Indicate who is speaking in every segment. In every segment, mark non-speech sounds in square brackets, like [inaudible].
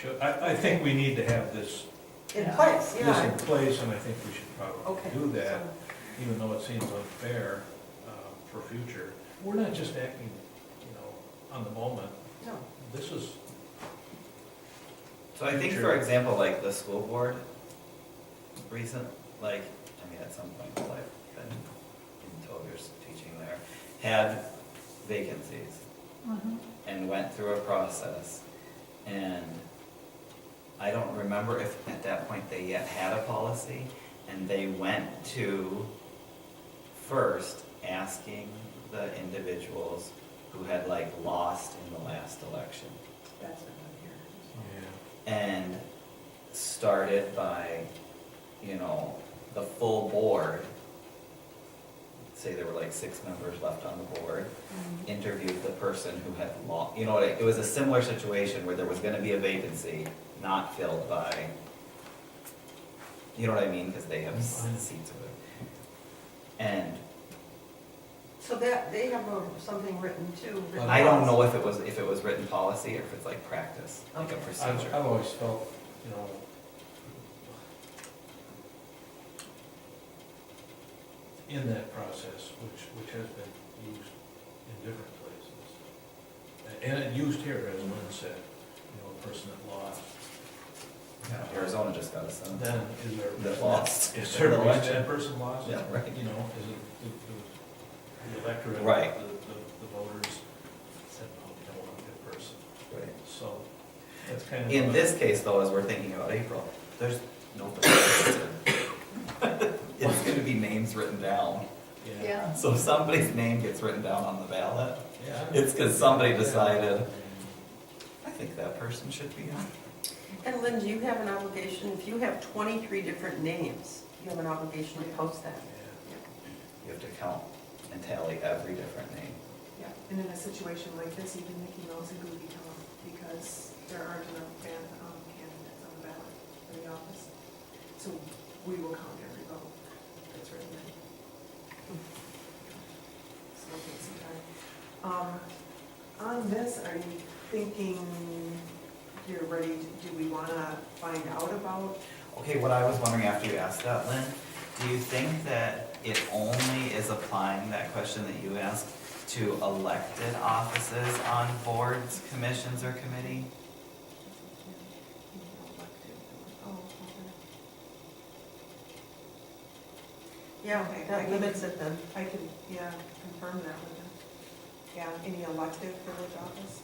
Speaker 1: should, I, I think we need to have this,
Speaker 2: In
Speaker 3: Yeah.
Speaker 2: place,
Speaker 1: this
Speaker 2: yeah.
Speaker 1: in place, and I think we should
Speaker 2: Okay.
Speaker 1: probably do that,
Speaker 2: so-
Speaker 1: even though it seems unfair uh, for future. We're not just acting, you know, on the moment.
Speaker 2: No,
Speaker 1: This is,
Speaker 4: So I think, for
Speaker 1: True.
Speaker 4: example, like the school board, recent, like, I mean, at some point in my life, been in twelve years teaching there, had vacancies and went through a process. And I don't remember if at that point they yet had a policy, and they went to first asking the individuals who had like lost in the last election
Speaker 2: that's not
Speaker 1: yeah,
Speaker 4: and started by, you know, the full board. Say there were like six members left on the board, interviewed the person who had lost, you know, it it was a similar situation where there was gonna be a vacancy not filled by, you know what I mean, because they have s- seats of it. And
Speaker 2: So that, they have a- something written too. written
Speaker 4: I don't know
Speaker 2: policy.
Speaker 4: if it was, if it was written policy or if it's like practice, like a
Speaker 2: Okay.
Speaker 1: I've,
Speaker 4: procedure.
Speaker 1: I've always felt, you know, in that process, which, which has been used in different places. And it used here, as Lynn said, you know, a person that lost,
Speaker 4: Yeah, Arizona just got a sentence.
Speaker 1: then is there.
Speaker 4: That lost. [laughs]
Speaker 1: Is there a reason
Speaker 4: Election.
Speaker 1: that person lost?
Speaker 4: Yeah, right.
Speaker 1: You know, is it the- the, the electorate?
Speaker 4: Right.
Speaker 1: The, the the voters said, no, we don't want that person,
Speaker 4: Right.
Speaker 1: so that's kind of.
Speaker 4: In
Speaker 1: a-
Speaker 4: this case, though, as we're thinking about April, there's nobody. It's gonna be names written down.
Speaker 1: Yeah.
Speaker 4: So if somebody's name gets written down on the ballot,
Speaker 1: Yeah.
Speaker 4: it's because somebody decided, I think that person should be on.
Speaker 2: And Lynn, do you have an obligation, if you have 23 different names, you have an obligation to post that.
Speaker 1: Yeah.
Speaker 4: You have to count and tally every different name.
Speaker 3: Yeah, and in a situation like this, even Mickey Mouse and Goofy come up because there aren't enough fan, um, candidates on the ballot for the office. So we will count every vote that's written in. So it'll take some time. Um, on this, are you thinking you're ready, to- do we wanna find out about?
Speaker 4: Okay, what I was wondering after you asked that, Lynn, do you think that it only is applying that question that you asked to elected offices on boards, commissions, or committee?
Speaker 3: Oh, okay.
Speaker 2: Yeah,
Speaker 3: Okay, I
Speaker 2: that
Speaker 3: can-
Speaker 2: limits it then.
Speaker 3: I can, yeah, confirm that with them. Yeah, any elective village office?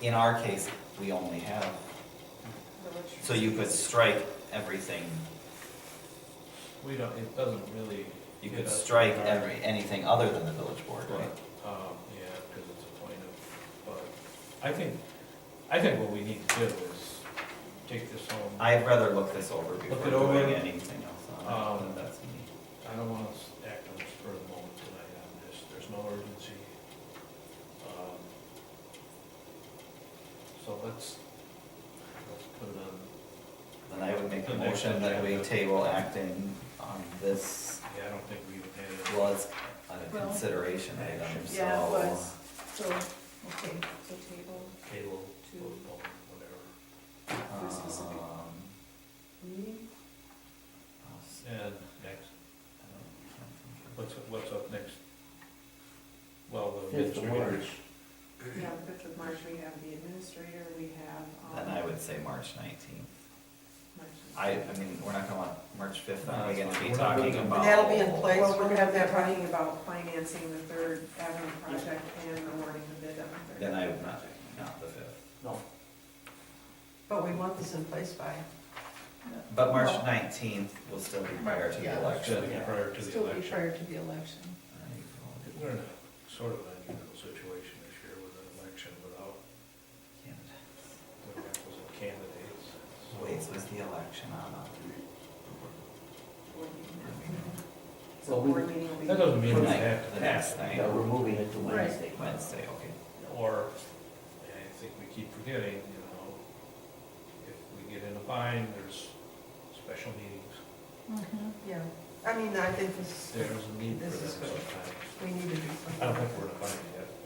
Speaker 4: In our case, we only have,
Speaker 3: village-
Speaker 4: so you could strike everything,
Speaker 1: We don't, it doesn't really.
Speaker 4: you
Speaker 1: hit
Speaker 4: could
Speaker 1: us
Speaker 4: strike
Speaker 1: hard,
Speaker 4: every, anything other than the village board,
Speaker 1: But,
Speaker 4: right?
Speaker 1: um, yeah, because it's a point of, but I think, I think what we need to do is take this home.
Speaker 4: I'd rather look this over
Speaker 1: Look
Speaker 4: before
Speaker 1: it over.
Speaker 4: doing anything else on it,
Speaker 1: Um,
Speaker 4: but that's me.
Speaker 1: I don't want to act on the spur of the moment tonight on this, there's no urgency. Um, So let's, let's put it on,
Speaker 4: Then I would make
Speaker 1: The
Speaker 4: a
Speaker 1: next
Speaker 4: motion that we
Speaker 1: agenda.
Speaker 4: table acting on this,
Speaker 1: yeah, I don't think we even had it.
Speaker 4: well, it's a
Speaker 5: Well,
Speaker 4: consideration item, so.
Speaker 5: Yeah, it was, so, okay, so table.
Speaker 1: Cable,
Speaker 5: Two.
Speaker 1: football, whatever.
Speaker 4: um,
Speaker 5: specific.
Speaker 3: Meeting?
Speaker 1: And next, what's, what's up next? Well, the
Speaker 6: Fifth of
Speaker 1: administrators.
Speaker 3: Yeah, the fifth of March, we have the administrator, we have. um,
Speaker 4: Then I would say March nineteenth.
Speaker 3: March.
Speaker 4: I, I mean, we're not gonna want March fifth,
Speaker 1: No,
Speaker 4: then we're
Speaker 1: it's
Speaker 4: gonna
Speaker 1: fine.
Speaker 4: be
Speaker 1: We're not
Speaker 4: talking
Speaker 1: looking-
Speaker 4: about.
Speaker 2: That'll be in place.
Speaker 3: Well, we're gonna have that talking about financing the Third Avenue project and awarding the bid on the Third.
Speaker 4: Then I would not, not the fifth.
Speaker 6: No.
Speaker 2: But we want this in place by,
Speaker 4: But March
Speaker 5: Well,
Speaker 4: nineteenth will still be prior to the
Speaker 5: Yeah.
Speaker 1: Should be
Speaker 4: election.
Speaker 1: prior to the
Speaker 5: Still be
Speaker 1: election.
Speaker 5: prior to the election.
Speaker 1: We're in a sort of unusual situation this year with an election without the requisite candidates. so-
Speaker 4: Wait, so is the election on?
Speaker 3: board meeting.
Speaker 6: Well,
Speaker 3: So
Speaker 6: we-
Speaker 3: board meeting will be.
Speaker 1: That doesn't mean we
Speaker 4: Tonight,
Speaker 1: have
Speaker 4: the
Speaker 1: to
Speaker 4: next
Speaker 1: pass
Speaker 4: night.
Speaker 6: Yeah, we're moving it to
Speaker 5: Right.
Speaker 6: Wednesday.
Speaker 4: Wednesday, okay.
Speaker 1: Or, I think we keep forgetting, you know, if we get in a bind, there's special meetings.
Speaker 2: yeah. I mean, I think this,
Speaker 1: There's a need for
Speaker 2: This
Speaker 1: them
Speaker 2: is good.
Speaker 1: sometimes.
Speaker 2: we need to do
Speaker 1: I don't
Speaker 2: something.
Speaker 1: think we're in a bind yet.